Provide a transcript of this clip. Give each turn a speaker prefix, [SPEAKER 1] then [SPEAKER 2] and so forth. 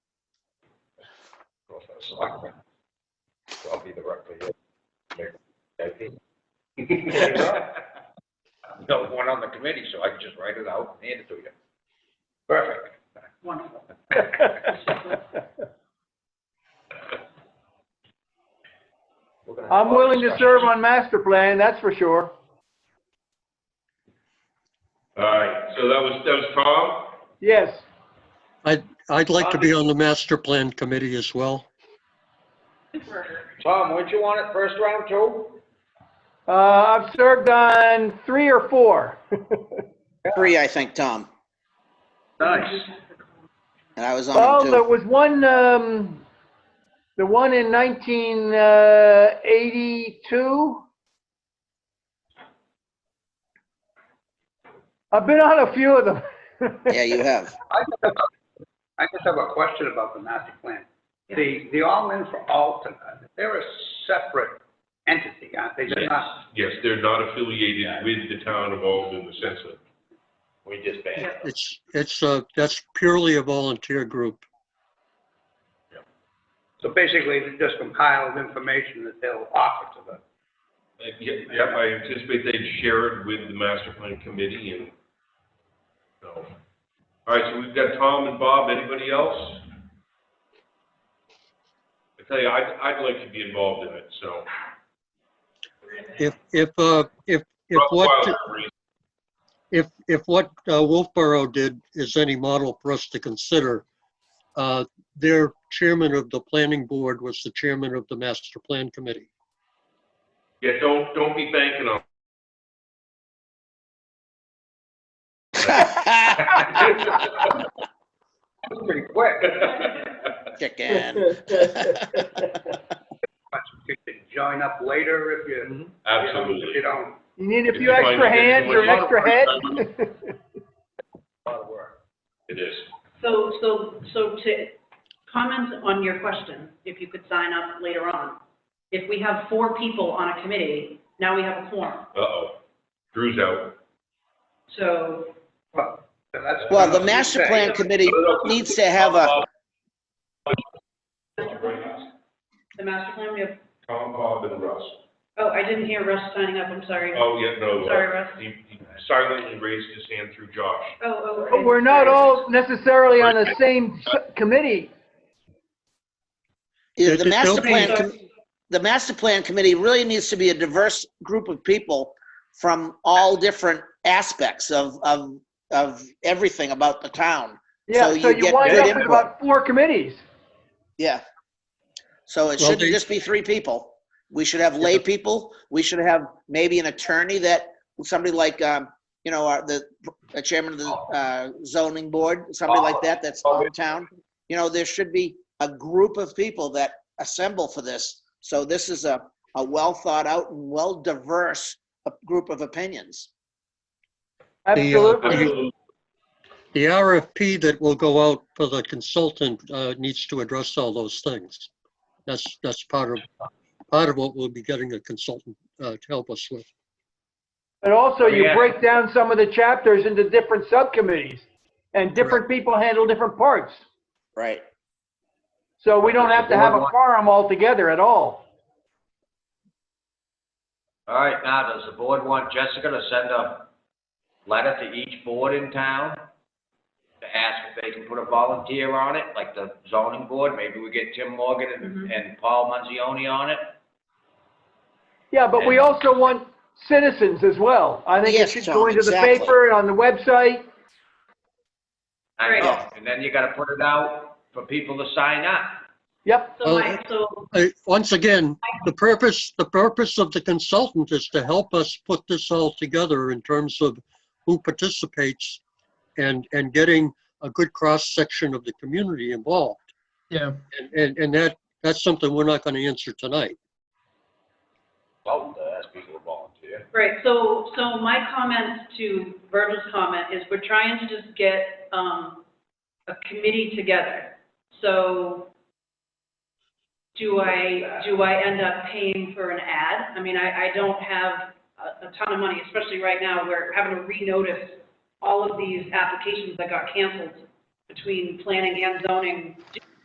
[SPEAKER 1] selectmen. So I'll be the representative. No one on the committee, so I can just write it out and hand it to you. Perfect.
[SPEAKER 2] Wonderful.
[SPEAKER 1] We're gonna have
[SPEAKER 3] I'm
[SPEAKER 1] a lot of
[SPEAKER 3] willing to
[SPEAKER 1] discussions.
[SPEAKER 3] serve on master plan, that's for sure.
[SPEAKER 4] All right, so that was, that was Tom?
[SPEAKER 3] Yes,
[SPEAKER 5] I'd, I'd like to be on the master plan committee as well.
[SPEAKER 1] Tom, weren't you on it first round too?
[SPEAKER 3] uh, I've served on three or four.
[SPEAKER 6] Three, I think, Tom,
[SPEAKER 1] Nice.
[SPEAKER 6] and I was
[SPEAKER 3] Well,
[SPEAKER 6] on them
[SPEAKER 3] there
[SPEAKER 6] too.
[SPEAKER 3] was one, um, the one in nineteen, uh, eighty-two. I've been on a few of them.
[SPEAKER 6] Yeah, you have.
[SPEAKER 2] I just have a- I just have a question about the master plan. The, the all-in for Alton, uh, they're a separate entity, aren't they? They're not-
[SPEAKER 4] Yes, they're not affiliated with the town of Alden in the sense of,
[SPEAKER 1] We just banned it.
[SPEAKER 5] It's, it's, uh, that's purely a volunteer group.
[SPEAKER 2] So basically, they just compiled information that they'll offer to the,
[SPEAKER 4] yeah, I anticipate they'd share it with the master plan committee and, so. All right, so we've got Tom and Bob, anybody else? I tell you, I'd, I'd like to be involved in it, so.
[SPEAKER 5] If, if, uh, if, if what, if, if what uh, Wolfboro did is any model for us to consider, uh, their chairman of the planning board was the chairman of the master plan committee.
[SPEAKER 4] Yeah, don't, don't be banking on.
[SPEAKER 2] pretty quick,
[SPEAKER 6] Chicken.
[SPEAKER 2] but you can join up later if you, you know,
[SPEAKER 4] Absolutely.
[SPEAKER 2] if you don't.
[SPEAKER 3] You need a
[SPEAKER 4] If
[SPEAKER 3] few
[SPEAKER 4] you find
[SPEAKER 3] extra
[SPEAKER 4] you get
[SPEAKER 3] hands
[SPEAKER 4] too
[SPEAKER 3] or an
[SPEAKER 4] much-
[SPEAKER 3] extra head?
[SPEAKER 1] A lot of work.
[SPEAKER 4] It is.
[SPEAKER 7] So, so, so to comment on your question, if you could sign up later on, if we have four people on a committee, now we have a quorum.
[SPEAKER 4] Uh-oh. Drew's out.
[SPEAKER 7] So
[SPEAKER 2] Well, so that's-
[SPEAKER 6] Well, the master plan committee needs to have a,
[SPEAKER 7] the master plan, we have,
[SPEAKER 4] Tom, Bob, and Russ.
[SPEAKER 7] oh, I didn't hear Russ signing up, I'm sorry. Oh,
[SPEAKER 4] Oh, yeah, no. uh,
[SPEAKER 7] Sorry, Russ.
[SPEAKER 4] He he silently raised his hand through Josh.
[SPEAKER 7] oh.
[SPEAKER 3] But We're not all necessarily on the same s- committee.
[SPEAKER 6] is the
[SPEAKER 5] They'll-
[SPEAKER 6] master plan, com-
[SPEAKER 7] So-
[SPEAKER 6] the master plan committee really needs to be a diverse group of people from all different aspects of, of, of everything about the town.
[SPEAKER 3] Yeah,
[SPEAKER 6] So
[SPEAKER 3] so
[SPEAKER 6] you
[SPEAKER 3] you
[SPEAKER 6] get
[SPEAKER 3] wind
[SPEAKER 6] good
[SPEAKER 3] up with
[SPEAKER 6] input.
[SPEAKER 3] about four committees.
[SPEAKER 6] Yeah. So it
[SPEAKER 5] Well,
[SPEAKER 6] shouldn't
[SPEAKER 5] they-
[SPEAKER 6] just be three people. We should have lay people. We should have maybe an attorney that, somebody like, um, you know, our- the, the chairman of the, uh, zoning board, somebody like that, that's hometown. You know, there should be a group of people that assemble for this. So this is a, a well thought out and well diverse uh, group of opinions.
[SPEAKER 3] Absolutely.
[SPEAKER 4] Absolutely.
[SPEAKER 5] The RFP that will go out for the consultant, uh, needs to address all those things. That's, that's part of, part of what we'll be getting a consultant, uh, to help us with.
[SPEAKER 3] But also you
[SPEAKER 1] Yeah.
[SPEAKER 3] break down some of the chapters into different subcommittees and different people handle different parts.
[SPEAKER 6] Right.
[SPEAKER 3] So we don't have to have a quorum altogether at all.
[SPEAKER 1] All right, now, does the board want Jessica to send a letter to each board in town? To ask if they can put a volunteer on it, like the zoning board, maybe we get Tim Morgan and,
[SPEAKER 7] Mhm.
[SPEAKER 1] and Paul Manzioni on it?
[SPEAKER 3] Yeah, but we also want citizens as well. I think it
[SPEAKER 6] Yes,
[SPEAKER 3] should
[SPEAKER 6] John,
[SPEAKER 3] go into the
[SPEAKER 6] exactly.
[SPEAKER 3] paper and on the website.
[SPEAKER 1] I
[SPEAKER 7] Right.
[SPEAKER 1] know, and then you gotta put it out for people to sign up.
[SPEAKER 3] Yep,
[SPEAKER 7] So my, so,
[SPEAKER 5] I- Once again, the purpose, the purpose of the consultant is to help us put this all together in terms of who participates and, and getting a good cross-section of the community involved.
[SPEAKER 8] Yeah.
[SPEAKER 5] And- And, and that, that's something we're not going to answer tonight.
[SPEAKER 1] Well, to ask people to volunteer.
[SPEAKER 7] right, so, so my comment to Virgil's comment is we're trying to just get, um, a committee together. So do I, do I end up paying for an ad? I mean, I, I don't have a, a ton of money, especially right now, we're having to renotice all of these applications that got canceled between planning and zoning